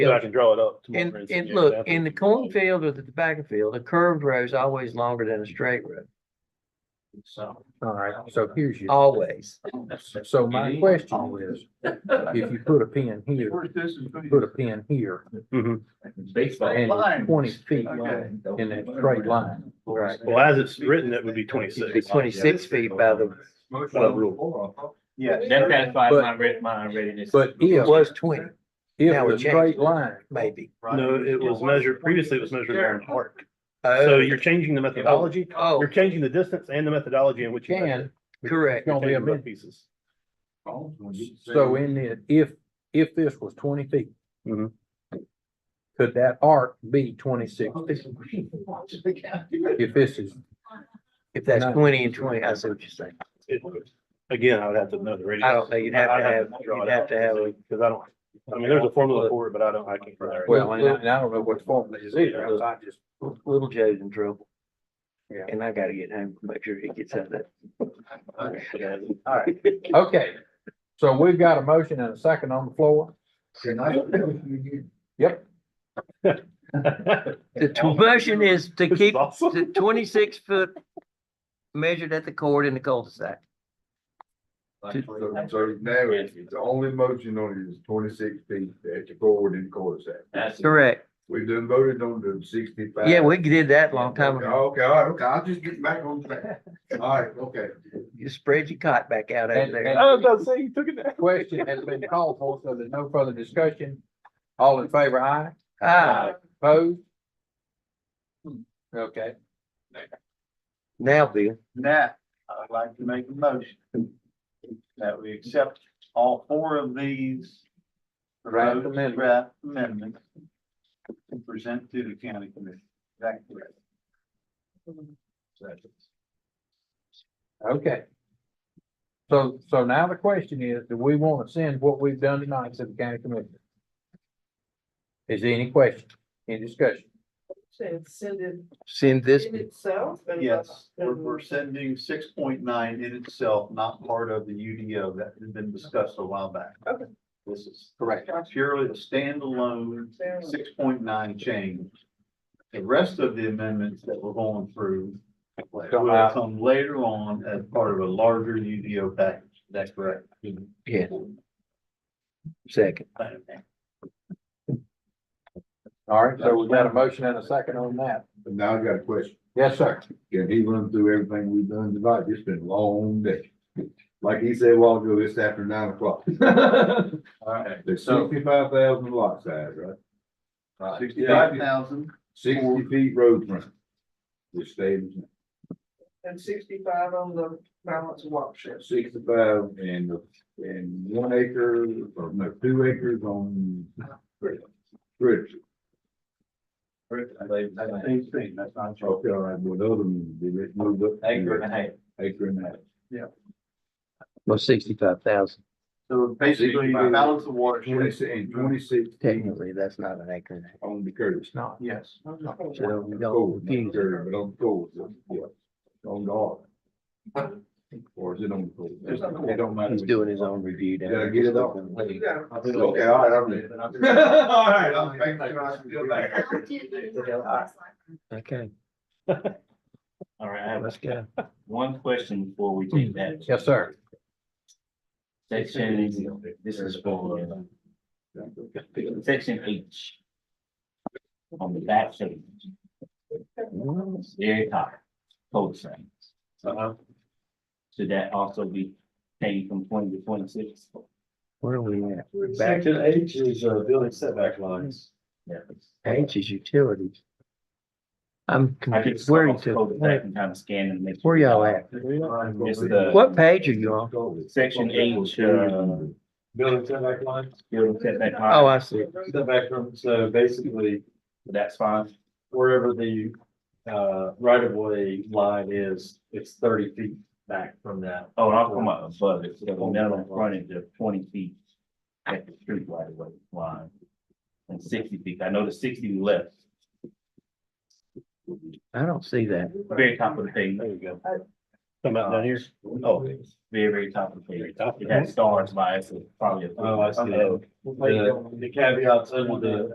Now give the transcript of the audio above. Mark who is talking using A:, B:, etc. A: So I can draw it up. tomorrow
B: And,
A: see
B: and
A: if
B: look,
A: that's-
B: in the cornfield or the tobacco field, a curved road is always longer than a straight road,
C: So, all right, so here's your.
B: always.
C: So my question is, if you put a pin here, put a pin here,
A: Mhm.
C: and it's twenty feet long in that straight line.
B: Right.
A: Well, as it's written, it would be twenty-six.
B: It'd be twenty-six feet by the,
A: By rule.
D: Yeah,
E: That satisfies
C: But-
E: my red, my readiness.
C: But
B: it
C: if,
B: was twenty, Now
C: if
B: we
C: the
B: changed it.
C: straight line,
B: maybe.
A: No, it was measured, previously it was measured there in arc. So
B: Oh,
A: you're changing the methodology,
B: oh,
A: you're changing the distance and the methodology in which you measure.
C: can,
B: correct.
A: You're
C: Gonna be a
A: changing both
C: bit-
A: pieces.
C: so in it, if, if this was twenty feet.
A: Mhm.
C: Mm-hmm. Could that arc be twenty-six? feet? If this is,
B: If that's
C: No.
B: twenty and twenty, I see what you're saying.
A: It- Again, I would have to know the radius.
B: I don't know, you'd have to
A: I'd
B: have-
A: draw it
B: you'd have
A: out
B: to have a-
A: Cause I don't, I mean, there's a formula for it, but I don't, I can't.
C: well, and I and I don't know what the formula is either, I just.
B: Little Joe's in trouble.
C: Yeah.
B: And I gotta get home, make sure he gets out of that.
C: All right, okay. So we've got a motion and a second on the floor. Yep.
B: The t- motion is to
A: This is
B: keep
A: awesome.
B: the twenty-six foot measured at the cord in the cul-de-sac.
F: So, so now, the only motion on it is twenty-six feet at the forward and cul-de-sac.
E: That's
B: Correct.
F: We done voted on the sixty-five.
B: Yeah, we did that a long time ago.
F: Okay, all right, okay, I'll just get back on track. All right, okay.
B: You spread your cot back out over
C: And-
B: there.
C: and-
A: I was about to say, you took it there.
C: Question has been called for, so there's no further discussion. All in favor, aye?
B: Ah,
C: Opposed? Okay,
B: now, Bill,
D: Now, I'd like to make a motion that we accept all four of these.
C: Draft
D: proposed
C: amendments.
D: Draft amendments. And present to the county commission. That's correct.
C: okay. So, so now the question is, do we want to send what we've done tonight to the county commission? Is there any question, any discussion?
E: And send it
B: send this,
E: itself.
D: Yes, we're, we're sending six point nine in itself, not part of the UDO that had been discussed a while back.
E: Okay.
D: This is
C: Correct.
D: purely a standalone six point nine change. The rest of the amendments that we're going through will
C: Come out.
D: come later on as part of a larger UDO package. That's correct.
B: yeah. Second,
C: All right, so we got a motion and a second on that.
F: But now I got a question.
C: Yes, sir.
F: Can he run through everything we've done tonight? It's been a long day. Like he said a while ago, it's after nine o'clock.
D: All right.
F: There's sixty-five thousand lot size, right?
D: Sixty-five thousand,
F: Sixty feet road run. Which stays
E: And sixty-five on the balance of watershed.
F: at sixty-five and, and one acre, or no, two acres on. Bridge.
D: I believe, that's the same thing, that's not true.
F: Okay, all right, well, the other one, they just moved up.
D: Acre and a half.
F: Acre and a half.
B: well, sixty-five thousand,
D: So basically,
F: Sixty-five.
D: balance of watershed.
F: Twenty-six, and twenty-six
B: technically, that's not an acre.
F: on the curve.
C: No.
D: Yes.
B: So we
F: Cold,
B: don't
F: not
B: confuse it.
F: curve, But on cold, yeah, on the arc. Or is it on the cold?
D: It's on the
F: It don't matter.
B: He's doing his own review. down
F: Did I
B: there.
F: get it all? Okay, all right, I'm ready. All right, I'm making sure I'm still there.
B: Okay,
E: All right, I have
B: let's go.
E: one question before we take that.
C: Yes, sir.
E: Section, this is for uh, section H. On the back page. Very top, code signs.
D: Uh-huh.
E: Should that also be changed from twenty to twenty-six?
B: Where are we at? Back
D: Section H is, uh, building setback lines.
E: Yeah.
B: H is utilities. I'm
E: I could
B: confused. Where are you
E: scroll
B: to?
E: scroll back and kind of scan and make.
B: Where y'all at?
E: It's the-
B: What page are you on?
E: Section H, uh,
D: Building setback lines,
E: building setback.
B: Oh, I see.
D: setback from, so basically
E: That's fine.
D: wherever the, uh, right of way line is, it's thirty feet back from that.
E: Oh, and I'm talking about above it, so the minimum frontage of twenty feet at the street right away line. And sixty feet, I know the sixty we left,
B: I don't see that.
E: very top of the page,
A: There you go. Come out down here.
E: oh, very, very top of the page.
A: Top of
E: It
A: the-
E: has stars by it, so probably. a-
D: Oh, I see. The the caveats under the